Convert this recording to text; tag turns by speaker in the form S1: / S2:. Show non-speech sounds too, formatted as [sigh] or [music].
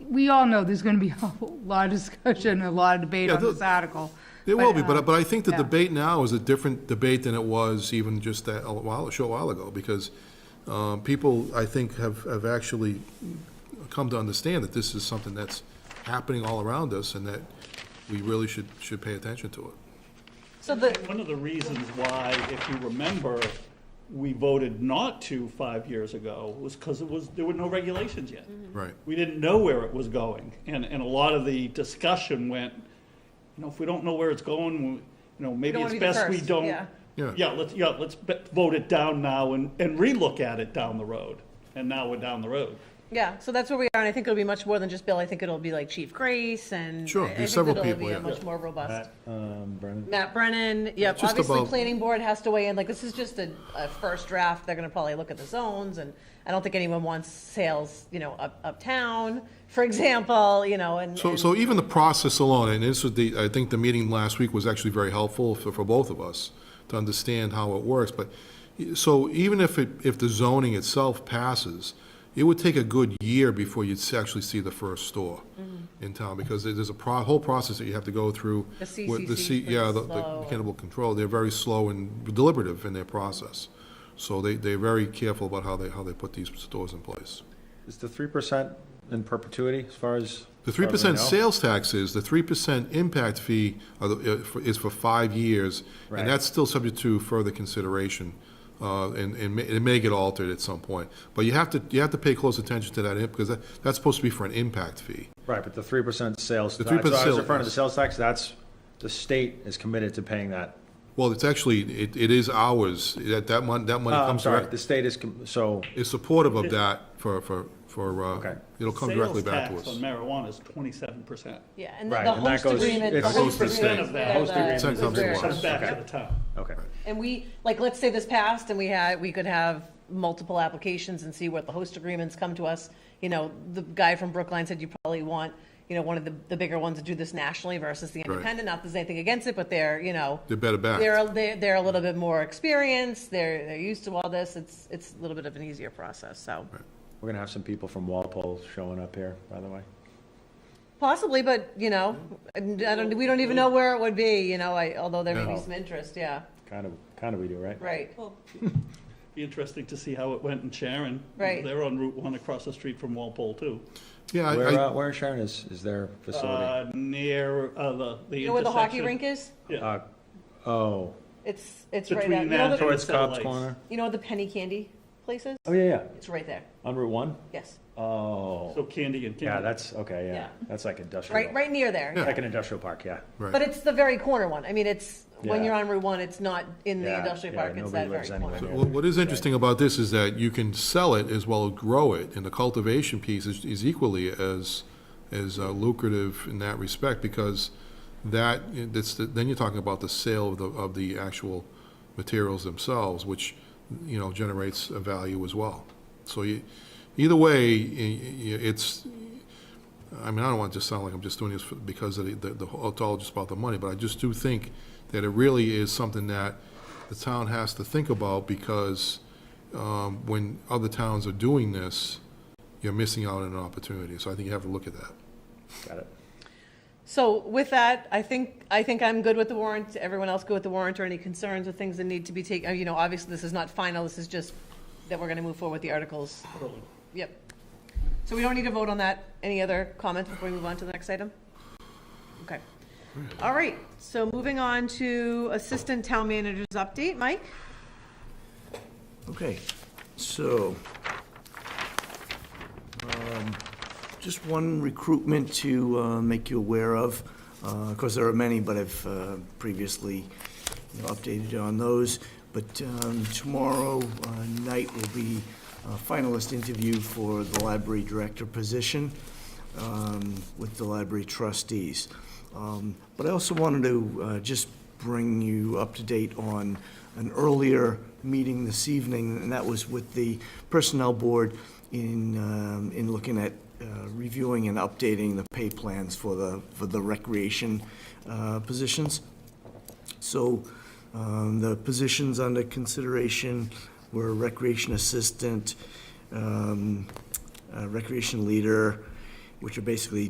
S1: we all know there's gonna be [laughs] a lot of discussion, a lot of debate
S2: Yeah,
S1: on
S2: there-
S1: this article.
S2: There will be, but, I- but I think the
S1: yeah.
S2: debate now is a different debate than it was even just that, a while, a short while ago, because, uh, people, I think, have, have actually come to understand that this is something that's happening all around us, and that we really should, should pay attention to it.
S3: So the,
S4: One of the reasons why, if you remember, we voted not to five years ago was because it was, there were no regulations yet.
S3: Mm-hmm.
S2: Right.
S4: We didn't know where it was going, and, and a lot of the discussion went, you know, if we don't know where it's going, we- you know, maybe
S3: don't
S4: it's
S3: wanna be the
S4: best we
S3: first,
S4: don't.
S3: yeah.
S2: Yeah.
S4: Yeah, let's, yeah, let's be- vote it down now and, and relook at it down the road, and now we're down the road.
S3: yeah, so that's where we are, and I think it'll be much more than just Bill. I think it'll be like Chief Grace and.
S2: Sure,
S3: I- I
S2: there's
S3: think
S2: several
S3: it'll be
S2: people,
S3: a
S2: yeah.
S3: Much more robust.
S2: Uh,
S5: Um, Brennan,
S3: Matt Brennan, yep,
S2: just
S3: obviously,
S2: about-
S3: planning board has to weigh in, like, this is just a, a first draft, they're gonna probably look at the zones, and I don't think anyone wants sales, you know, up, uptown, for example, you know, and.
S2: So,
S3: and-
S2: so even the process alone, and this was the, I think the meeting last week was actually very helpful for, for both of us to understand how it works, but, so even if it, if the zoning itself passes, it would take a good year before you'd s- actually see the first store in town, because there- there's a pro, whole process that you have to go through.
S3: The
S2: with
S3: CCC
S2: C-
S3: is pretty
S2: Yeah, the,
S3: slow.
S2: the cannibal control, they're very slow and deliberative in their process. So they, they're very careful about how they, how they put these stores in place.
S5: is the three percent in perpetuity as far as?
S2: The
S5: as far
S2: three
S5: as I
S2: percent
S5: know?
S2: sales tax is, the three percent impact fee are the- uh, for- is for five years,
S5: Right.
S2: and that's still subject to further consideration, uh, and, and may- it may get altered at some point. But you have to, you have to pay close attention to that, eh, because that, that's supposed to be for an impact fee.
S5: Right, but the three percent sales.
S2: The
S5: tax- so
S2: 3%
S5: I was in front
S2: sales.
S5: of the sales tax, that's, the state is committed to paying that.
S2: Well, it's actually, it, it is ours, that, that money, that money
S5: Uh, I'm
S2: comes
S5: sorry,
S2: direct,
S5: the state is, com- so,
S2: is supportive of that for, for, for, uh,
S5: Okay.
S2: it'll come directly back to us.
S4: Sales tax on marijuana is twenty-seven percent.
S3: Yeah, and the-
S5: Right,
S3: the
S5: and that
S3: host
S5: goes-
S3: agreement. the host
S5: it's-
S2: Goes to the
S3: agreement
S4: state.
S3: where
S4: Host
S3: the-
S5: agreement
S3: is
S2: comes
S3: where-
S2: to
S4: Comes
S2: us.
S4: back to the town.
S5: okay.
S3: And we, like, let's say this passed and we had, we could have multiple applications and see what the host agreements come to us. You know, the guy from Brookline said you probably want, you know, one of the, the bigger ones to do this nationally versus the independent. Not that there's anything against it, but they're, you know.
S2: They're better backed.
S3: They're, they're, they're a little bit more experienced. They're, they're used to all this. It's, it's a little bit of an easier process, so.
S5: We're gonna have some people from Walpole showing up here, by the way.
S3: Possibly, but, you know, I don't, we don't even know where it would be, you know, I, although there may be
S5: Yeah.
S3: some interest, yeah,
S5: Kind of, kind of we do, right?
S3: right.
S4: Be interesting to see how it went in Sharon.
S3: Right.
S4: They're on Route One across the street from Walpole too.
S2: Yeah, I-
S5: Where,
S2: I,
S5: uh, where in Sharon is, is their facility?
S4: Uh, near, uh, the, the intersection.
S3: You know where the hockey rink is?
S4: Yeah,
S5: Uh, Oh,
S3: It's, it's right out,
S4: Between
S3: you know,
S4: that
S3: the-
S4: and-
S5: towards Cobb's
S4: Satellites.
S5: Corner?
S3: you know the penny candy places?
S5: Oh, yeah, yeah,
S3: It's right there,
S5: on Route One?
S3: yes,
S5: Oh,
S4: so Candy and Candy.
S5: yeah, that's, okay, yeah,
S3: Yeah.
S5: that's like industrial.
S3: right, right near there.
S5: Like an industrial park, yeah.
S2: right.
S3: But it's the very corner one, I mean, it's, when
S5: Yeah.
S3: you're on Route One, it's not in the
S5: Yeah,
S3: industrial
S5: yeah,
S3: park, it's
S5: nobody
S3: that very
S5: lives anywhere
S3: corner.
S5: near
S2: Well, What is interesting about this is that you can sell it as well as grow it, and the cultivation piece is, is equally as, as uh, lucrative in that respect, because that, that's, the- then you're talking about the sale of the, of the actual materials themselves, which, you know, generates a value as well. So you, either way, i- i- it's, I mean, I don't want to just sound like I'm just doing this for- because of the- the, the, whole- it's all just about the money, but I just do think that it really is something that the town has to think about because um, when other towns are doing this, you're missing out on an opportunity. So I think you have to look at that.
S5: Got it.
S3: So with that, I think, I think I'm good with the warrant, everyone else good with the warrant, or any concerns or things that need to be taken, you know, obviously, this is not final, this is just that we're gonna move forward with the articles. Yep. So we don't need to vote on that, any other comments before we move on to the next item? Okay. All right, so moving on to Assistant Town Manager's update, Mike?
S6: Okay, so, um, just one recruitment to uh, make you aware of. Uh, Of course, there are many, but I've uh, previously you know, updated you on those. But um, tomorrow uh, night will be a finalist interview for the library director position um, with the library trustees. Um, But I also wanted to uh, just bring you up to date on an earlier meeting this evening, and that was with the Personnel Board in, um, in looking at uh, reviewing and updating the pay plans for the, for the recreation uh, positions. So um, the positions under consideration were recreation assistant, um, uh, recreation leader, which are basically